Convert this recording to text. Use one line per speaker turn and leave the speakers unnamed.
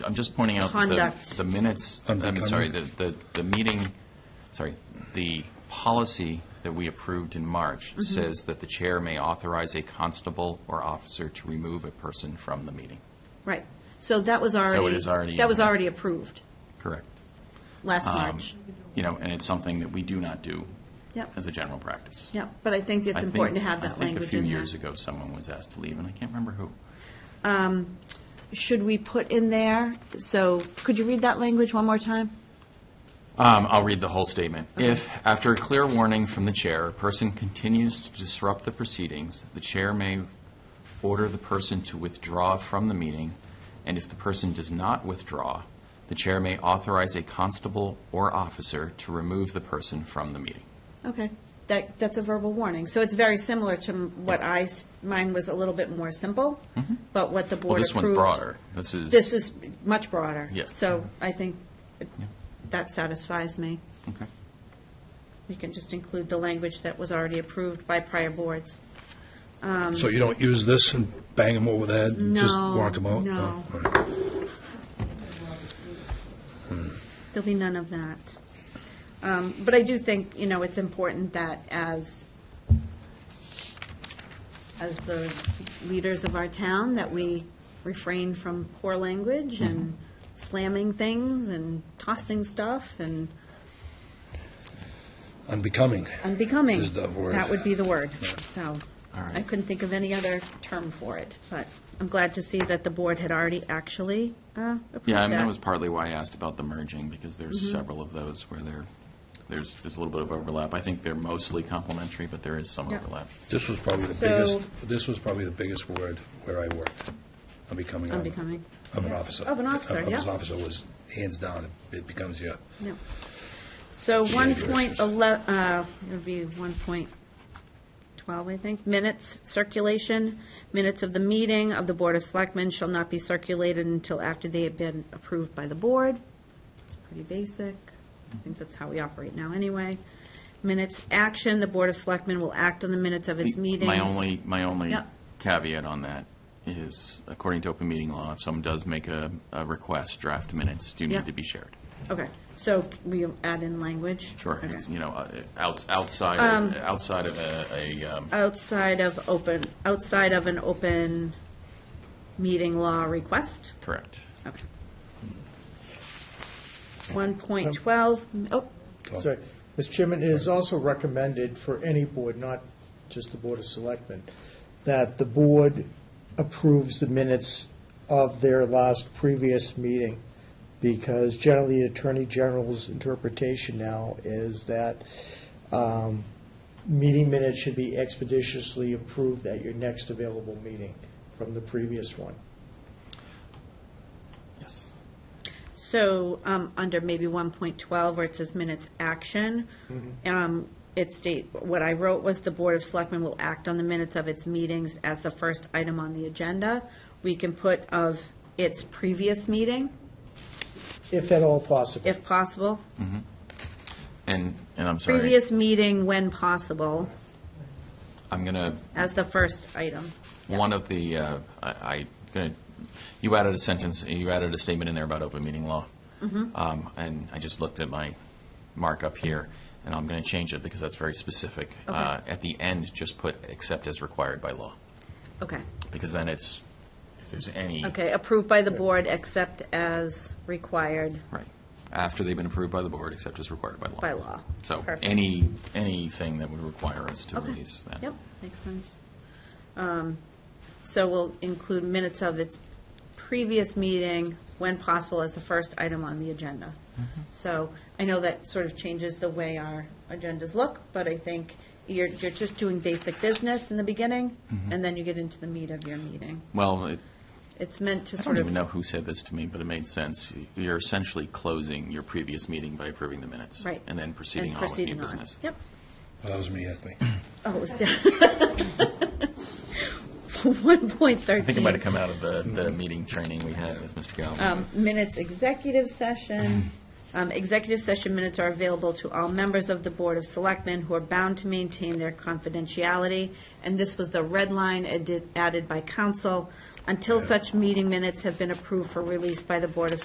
I'm just pointing out that the-
Conduct.
the minutes, I'm
Unbecoming.
sorry, the, the, the meeting, sorry, the policy that we approved in March
Mm-hmm.
says that the chair may authorize a constable or officer to remove a person from the meeting.
Right. So that was already.
is already
That was
in.
already approved
Correct.
last
Um,
March.
You know, and it's something that we do not do
Yep.
as a general practice.
Yeah, but I think
I
it's
think-
important to have that
I think a
language
few
in there.
years ago, someone was asked to leave, and I can't remember who.
Should we put in there, so, could you read that language one more time?
Um, I'll read the whole statement. If, after a clear warning from the chair, a person continues to disrupt the proceedings, the chair may order the person to withdraw from the meeting, and if the person does not withdraw, the chair may authorize a constable or officer to remove the person from the meeting.
Okay, that, that's a verbal warning. So it's very similar to m- what I, s- mine was a little bit more simple, but what the
Mm-hmm. Well,
board
this
approved.
one's broader. This is.
This is much broader.
Yes.
So I think it-
Yeah.
that satisfies me.
Okay.
We can just include the language that was already approved by prior boards.
So you don't use this and bang them over the head? and Just
No,
walk them out? Oh,
no.
All right.
There'll be none of that. Um, But I do think, you know, it's important that as, as the leaders of our town, that we refrain from poor language and
Mm-hmm.
slamming things and tossing stuff and
Unbecoming.
unbecoming.
Is the word.
That would be the word, so.
All right.
I couldn't think of any other term for it, but I'm glad to see that the board had already actually uh, approved that.
Yeah, I mean, that was partly why I asked about the merging, because there's
Mm-hmm.
several of those where there, there's, there's a little bit of overlap. I think they're mostly complementary, but there is some
Yeah.
overlap.
This was probably the
So-
biggest, this was probably the biggest word where I worked. Unbecoming. of-
Unbecoming.
Of an
Yeah.
officer.
Of an officer,
Of- Of
yeah.
an officer was hands down, it becomes your,
No. So
Yeah,
one
yours
point
is-
eleven, uh, it would be one point twelve, I think, minutes circulation. Minutes of the meeting of the Board of Selectmen shall not be circulated until after they have been approved by the board. It's pretty basic. I think that's how we operate now anyway. Minutes action, the Board of Selectmen will act on the minutes of its meetings.
My only, my only
Yep.
caveat on that is, according to open meeting law, if someone does make a, a request, draft minutes do
Yep.
need to be shared.
Okay, so we add in language?
Sure,
Okay. Um,
it's, you know, uh, outs- outside, of- outside of a, a, um,
Outside of open, outside of an open meeting law request?
correct.
Okay. 1.12, m- oh,
Sorry. Mr. Chairman, it is also recommended for any board, not just the Board of Selectmen, that the board approves the minutes of their last previous meeting, because generally the Attorney General's interpretation now is that um, meeting minutes should be expeditiously approved at your next available meeting from the previous one.
Yes.
so, um, under maybe 1.12, where it says minutes action, um, it state, what I wrote was, "The Board of Selectmen will act on the minutes of its meetings as the first item on the agenda." We can put of its previous meeting,
If at all possible.
if possible.
And, and I'm sorry,
Previous meeting when possible,
I'm going to
as the first item.
One of the, uh, I, I- gonna- you added a sentence, you added a statement in there about open meeting law.
Mm-hmm.
Um, And I just looked at my markup here, and I'm going to change it because that's very specific.
Okay.
Uh, At the end, just put, except as required by law,
Okay.
because then it's, if there's any,
Okay, approved by the board except as required
right, after they've been approved by the board, except as required by law.
by law.
So
Perfect.
any, anything that would require us to
Okay.
release that.
Yep, makes sense. Um, So we'll include minutes of its previous meeting when possible as the first item on the agenda.
Mm-hmm.
So I know that sort of changes the way our agendas look, but I think you're, you're just doing basic business in the beginning,
Mm-hmm.
and then you get into the meat of your meeting.
Well, it-
It's meant
I
to
don't
sort
even
of,
know who said this to me, but it made sense. You're essentially closing your previous meeting by approving the minutes.
Right.
And then proceeding
and
on with new
proceeding on.
business.
Yep.
that was me, I think.
Oh, it was down. One point
I think it might have
thirteen.
come out of the, the meeting training we had with Mr. Galvin.
Um, minutes, executive session. Um, executive session minutes are available to all members of the Board of Selectmen who are bound to maintain their confidentiality. And this was the red line added, added by council. until such meeting minutes have been approved for release by the Board of